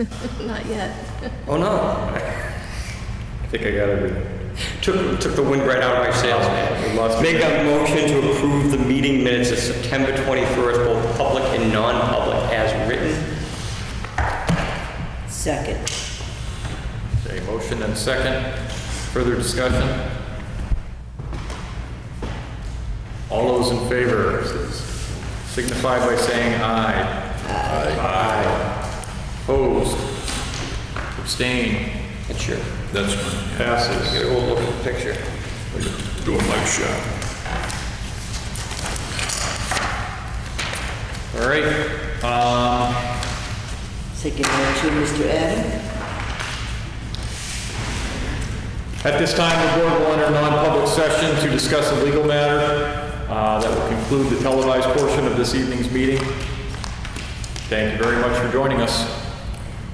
Not yet. Oh no. I think I got everything. Took, took the wind right out of my sails, man. We lost- Make a motion to approve the meeting minutes of September 21st, both public and non-public, as written. Second. Okay, motion and second. Further discussion? All those in favor signify by saying aye. Aye. Opposed? Abstain? That's your, That's mine. get Passes. a whole look at the picture. Doing my shot. All right. Um, Second motion, Mr. Adam. At this time, the board will enter non-public session to discuss a legal matter uh, that will conclude the televised portion of this evening's meeting. Thank you very much for joining us.